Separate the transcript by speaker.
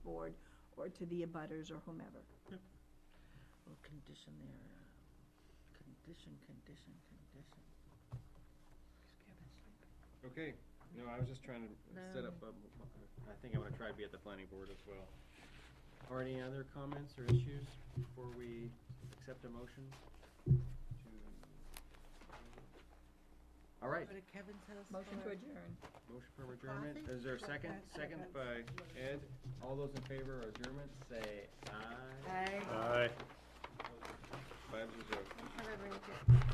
Speaker 1: board or to the abutters or whomever.
Speaker 2: Well, condition there, uh, condition, condition, condition.
Speaker 3: Okay, no, I was just trying to set
Speaker 2: No.
Speaker 3: up, a m- m- I think I'm gonna try to be at the planning board as well. Are any other comments or issues before we accept a motion to? All right,
Speaker 2: Go to Kevin's house
Speaker 1: Motion to
Speaker 2: for-
Speaker 1: adjourn.
Speaker 3: motion for adjournment,
Speaker 2: Coffee?
Speaker 3: is there a second? Second by Ed, all those in favor of adjournment, say aye.
Speaker 2: Aye.
Speaker 3: Uh,
Speaker 4: Aye.
Speaker 3: Five zero.
Speaker 2: I'm trying to bring it.